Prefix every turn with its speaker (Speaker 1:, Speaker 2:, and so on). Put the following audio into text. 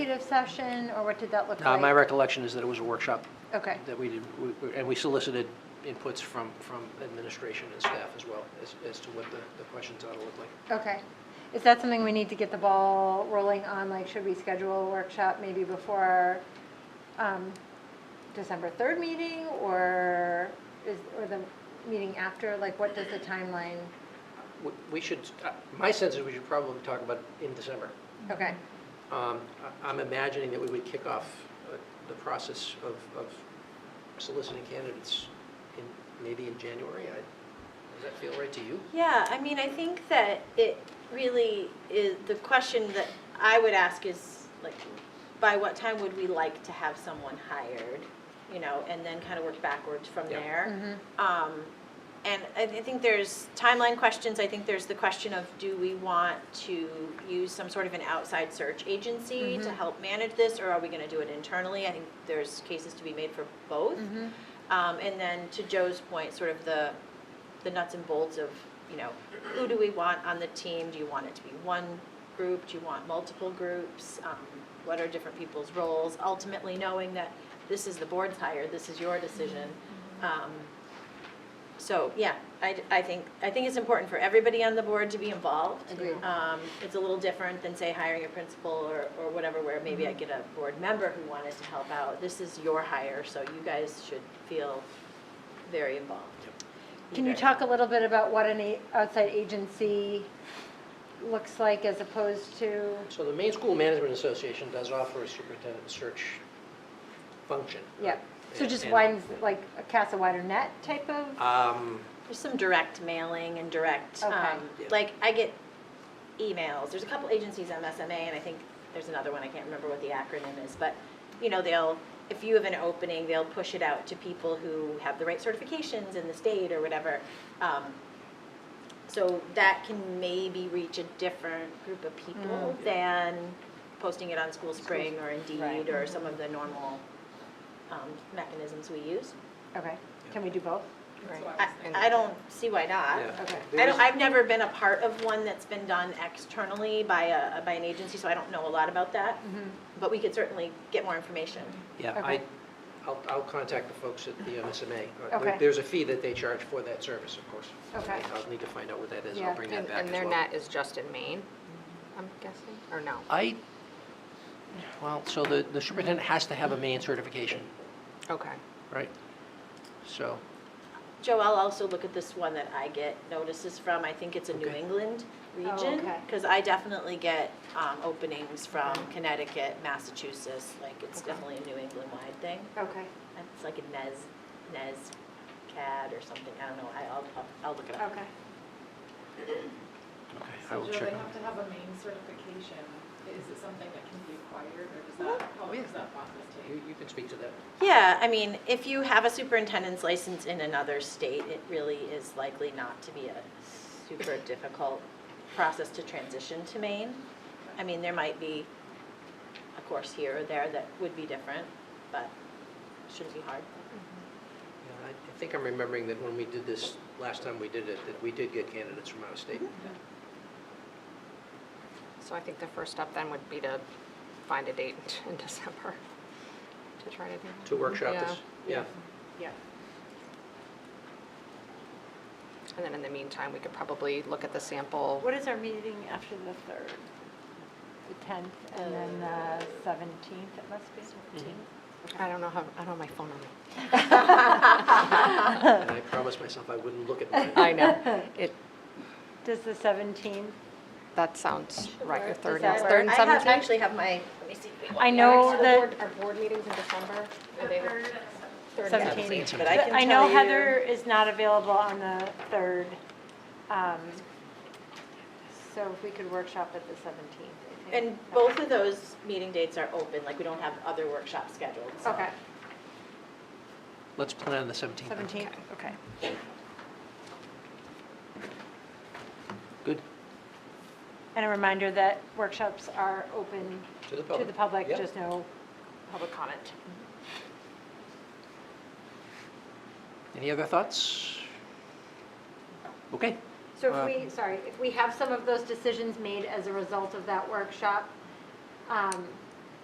Speaker 1: executive session, or what did that look
Speaker 2: Uh,
Speaker 1: like?
Speaker 2: My recollection is that it was a workshop
Speaker 1: Okay,
Speaker 2: that we did, we- we- and we solicited inputs from, from administration and staff as well as, as to what the, the questions ought to look like.
Speaker 1: okay. Is that something we need to get the ball rolling on? Like, should we schedule a workshop maybe before our um, December 3rd meeting, or is, or the meeting after? Like, what does the timeline?
Speaker 2: We- We should, uh, my sense is we should probably talk about it in December.
Speaker 1: Okay,
Speaker 2: Um, I- I'm imagining that we would kick off uh, the process of, of soliciting candidates in, maybe in January. I- Does that feel right to you?
Speaker 3: Yeah, I mean, I think that it really is, the question that I would ask is, like, by what time would we like to have someone hired? You know, and then kind of work backwards from
Speaker 2: Yeah.
Speaker 3: there.
Speaker 1: Mm-hmm.
Speaker 3: Um, and I I think there's timeline questions, I think there's the question of, do we want to use some sort of an outside search agency to help manage this, or are we gonna do it internally? I think there's cases to be made for both.
Speaker 1: Mm.
Speaker 3: Um, and then to Joe's point, sort of the, the nuts and bolts of, you know, who do we want on the team? Do you want it to be one group? Do you want multiple groups? Um, what are different people's roles? Ultimately knowing that this is the board's hire, this is your decision. Um, so, yeah, I, I think, I think it's important for everybody on the board to be involved.
Speaker 1: Agreed.
Speaker 3: Um, it's a little different than, say, hiring a principal or, or whatever, where maybe I get a board member who wanted to help out. This is your hire, so you guys should feel very involved.
Speaker 1: Can you
Speaker 3: Okay.
Speaker 1: talk a little bit about what an a- outside agency looks like as opposed to,
Speaker 2: So the Maine School Management Association does offer a superintendent search function.
Speaker 1: yeah? So
Speaker 2: And-
Speaker 1: just
Speaker 2: and,
Speaker 1: widens, like, cast a wider net type of?
Speaker 2: um,
Speaker 3: There's some direct mailing and direct, um,
Speaker 2: Okay.
Speaker 3: like, I get emails, there's a couple agencies on SMA, and I think there's another one, I can't remember what the acronym is, but, you know, they'll, if you have an opening, they'll push it out to people who have the right certifications in the state or whatever. Um, So that can maybe reach a different group of people than posting it on School Spring or Indeed
Speaker 1: Right.
Speaker 3: or some of the normal um, mechanisms we use.
Speaker 1: Okay, can we do both?
Speaker 3: I, I don't see why not.
Speaker 2: yeah.
Speaker 1: Okay.
Speaker 3: I don't, I've never been a part of one that's been done externally by a, by an agency, so I don't know a lot about that. But we could certainly get more information.
Speaker 2: Yeah, I,
Speaker 1: Okay.
Speaker 2: I'll, I'll contact the folks at the MSMA. Uh, there-
Speaker 1: Okay.
Speaker 2: There's a fee that they charge for that service, of course.
Speaker 1: Okay.
Speaker 2: I'll need to find out what that is,
Speaker 1: Yeah.
Speaker 2: I'll bring that
Speaker 4: And,
Speaker 2: back
Speaker 4: and
Speaker 2: as
Speaker 4: their
Speaker 2: well.
Speaker 4: net is just in Maine, I'm guessing, or no?
Speaker 2: I, well, so the, the superintendent has to have a Maine certification,
Speaker 4: Okay.
Speaker 2: right? So,
Speaker 3: Joe, I'll also look at this one that I get notices from, I think it's a New
Speaker 2: Okay.
Speaker 3: England
Speaker 1: Oh,
Speaker 3: region.
Speaker 1: okay.
Speaker 3: Because I definitely get, um, openings from Connecticut, Massachusetts, like, it's definitely a New England-wide thing.
Speaker 1: Okay,
Speaker 3: It's like a NES, NES CAD or something, I don't know, I, I'll, I'll- I'll look it up.
Speaker 1: okay.
Speaker 2: okay, I
Speaker 5: So
Speaker 2: will
Speaker 5: do they
Speaker 2: check.
Speaker 5: have to have a main certification? Is it something that can be acquired, or does
Speaker 4: Oh,
Speaker 5: that, how long does that process take?
Speaker 2: You, you can speak to that.
Speaker 3: Yeah, I mean, if you have a superintendent's license in another state, it really is likely not to be a super difficult process to transition to Maine. I mean, there might be a course here or there that would be different, but shouldn't be hard.
Speaker 2: Yeah, I I think I'm remembering that when we did this, last time we did it, that we did get candidates from out of state.
Speaker 4: So I think the first step then would be to find a date in December to try to do that.
Speaker 2: To workshop this, yeah.
Speaker 4: Yeah. And then in the meantime, we could probably look at the sample.
Speaker 1: What is our meeting after the 3rd? The 10th and then the 17th, it must be.
Speaker 4: I don't know how, I don't have my phone on me.
Speaker 2: And I promised myself I wouldn't look at mine.
Speaker 4: I know, it,
Speaker 1: Does the 17th?
Speaker 4: that sounds right, your
Speaker 1: Does
Speaker 4: third,
Speaker 1: that
Speaker 4: and- third and
Speaker 3: I have,
Speaker 4: seventeenth?
Speaker 3: actually have my, let me see.
Speaker 1: I know that,
Speaker 4: Our board meetings in December, are they the third
Speaker 1: and
Speaker 4: and
Speaker 1: 17th?
Speaker 4: seventeenth?
Speaker 3: But I can
Speaker 1: I know
Speaker 3: tell you-
Speaker 1: Heather is not available on the 3rd. um, So if we could workshop at the 17th. I think
Speaker 3: And
Speaker 1: that
Speaker 3: both
Speaker 1: would-
Speaker 3: of those meeting dates are open, like, we don't have other workshops scheduled, so.
Speaker 1: Okay,
Speaker 2: Let's plan on the 17th. then.
Speaker 1: 17th, okay.
Speaker 2: Good,
Speaker 1: And a reminder that workshops are open
Speaker 2: to
Speaker 1: to
Speaker 2: the public.
Speaker 1: the public,
Speaker 2: Yeah.
Speaker 1: just no,
Speaker 4: Public comment.
Speaker 2: Any other thoughts? Okay,
Speaker 1: So
Speaker 2: Uh,
Speaker 1: if we, sorry, if we have some of those decisions made as a result of that workshop, um,